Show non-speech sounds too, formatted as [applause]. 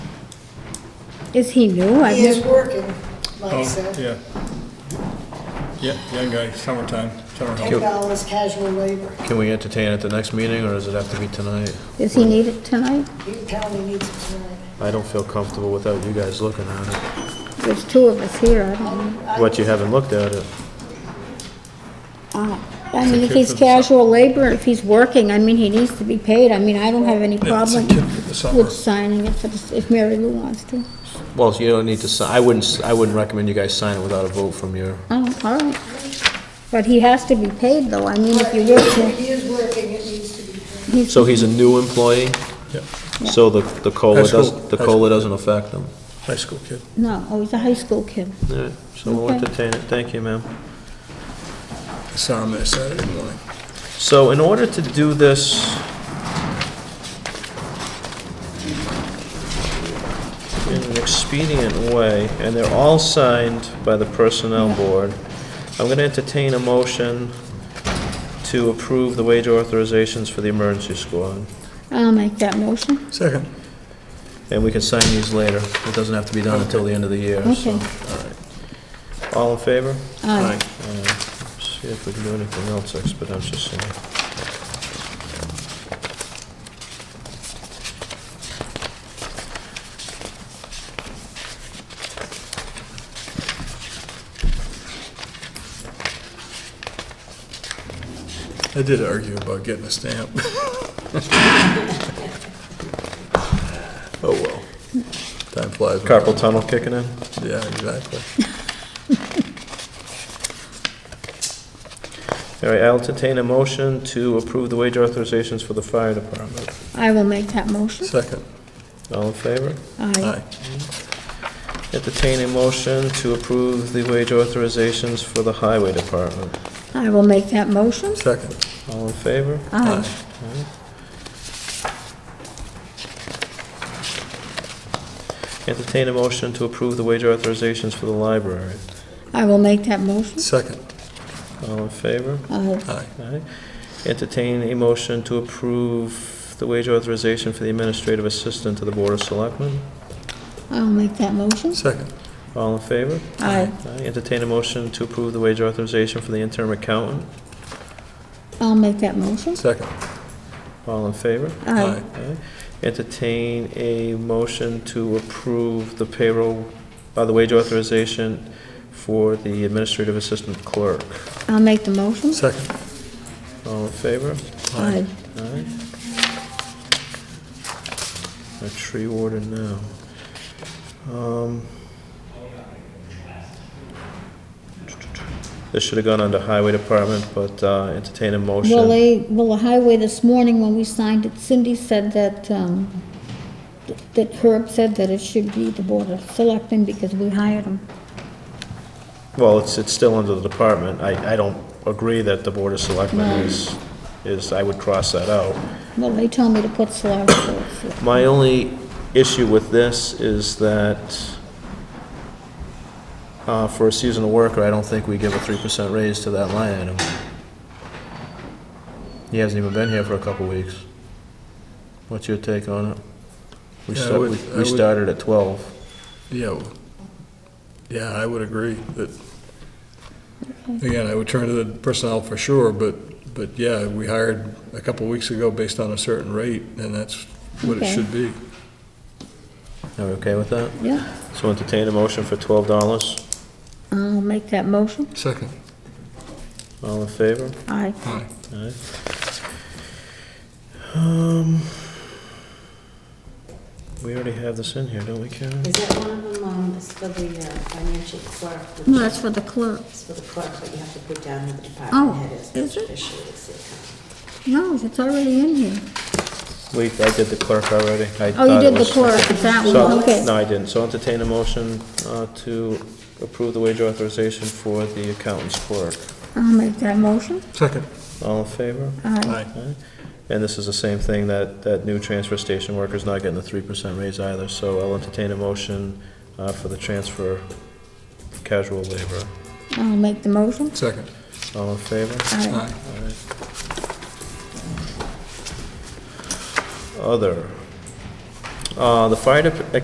Is he new? I've He is never, working, like Oh, so, yeah. Yeah, young guy, summertime, summer ten help. dollars casual labor. Can we entertain at the next meeting, or does it have to be tonight? does he need it tonight? He apparently needs it tonight. I don't feel comfortable without you guys looking at There's two of us here, I don't know. it. What, you haven't looked at it? Oh, I mean, if kid he's for the summer. casual labor, if he's working, I mean, he needs to be paid. I mean, I don't have any Yeah, it's a problem kid for the summer. with signing it for the- if Mary Lou wants to. Well, you don't need to sign, I wouldn't, s- I wouldn't recommend you guys sign it without a vote from your, Oh, all right. But he has to be paid, though. I mean, if But you work him, He is working, it needs to be. he's, so he's a new employee, Yeah, so the, the COLA High school. doesn't, the High school. COLA doesn't affect him. high school kid. no, oh, he's a high school kid. All right, so we'll Okay. entertain it, thank you, ma'am. I Saw him there Saturday morning. So in order to do this... in an expedient way, and they're all signed by the Personnel Board, I'm going to entertain a motion to approve the wage authorizations for the emergency squad. I'll make that motion. Second. And we can sign these later. It doesn't have to be done until the end of the year, so... Okay. all right. All in favor? Aye. Uh, See if we can do anything else expeditiously. I did argue about getting a stamp. [laughs] Oh, well. Time flies. when- Carpal tunnel kicking in? Yeah, exactly. All right, I'll entertain a motion to approve the wage authorizations for the fire department. I will make that motion. Second, All in favor? Aye. aye. Entertain a motion to approve the wage authorizations for the highway department. I will make that motion. Second, All in favor? Aye. aye. Entertain a motion to approve the wage authorizations for the library. I will make that motion. Second, All in favor? Aye. aye. Aye. Entertain a motion to approve the wage authorization for the administrative assistant to the board of selectmen. I'll make that motion. Second, All in favor? Aye. Aye. Entertain a motion to approve the wage authorization for the interim accountant. I'll make that motion. second, All in favor? Aye. aye. Aye. Entertain a motion to approve the payroll, uh, the wage authorization for the administrative assistant clerk. I'll make the motion. Uh, Second, All in favor? Aye. Aye. A tree warden now. Um, This should have gone under highway department, but uh, entertain a motion. Well, they, well, the highway this morning, when we signed it, Cindy said that, um, that Herb said that it should be the Board of Selectmen because we hired him. Well, it's, it's still under the department. I, I don't agree that the Board of Selectmen No. is, is, I would cross that out. Well, they told me to put Solari [coughs] first. My only issue with this is that uh, for a seasonal worker, I don't think we give a 3% raise to that line item. He hasn't even been here for a couple weeks. What's your take on it? We Yeah, I start- would- we- I we would- started at 12. yeah. w- Yeah, I would agree that, again, I would turn to the personnel for sure, but, but yeah, we hired a couple weeks ago based on a certain rate, and that's what it Okay. should be. Are we okay with that? Yeah, So entertain a motion for $12. I'll make that motion. Second, All in favor? Aye. aye. Alright. Um, we already have this in here, don't we, Karen? Is that one of them, um, is for the uh, financial clerk? No, that's for the clerk. It's for the clerk, but you have to put down who the Oh, department head is. is it? Officially, it's the accountant. No, it's already in here. We, I did the clerk already. I Oh, you thought it did the was- clerk, it's that So- one, okay. No, I didn't. So entertain a motion, uh, to approve the wage authorization for the accountant's clerk. I'll make that motion. Second, All in favor? Aye. aye. Alright. And this is the same thing, that, that new transfer station worker's not getting a three percent raise either, so I'll entertain a motion, uh, for the transfer for casual labor. I'll make the motion. Second, All in favor? Aye. aye. Other. Uh, The fire dep-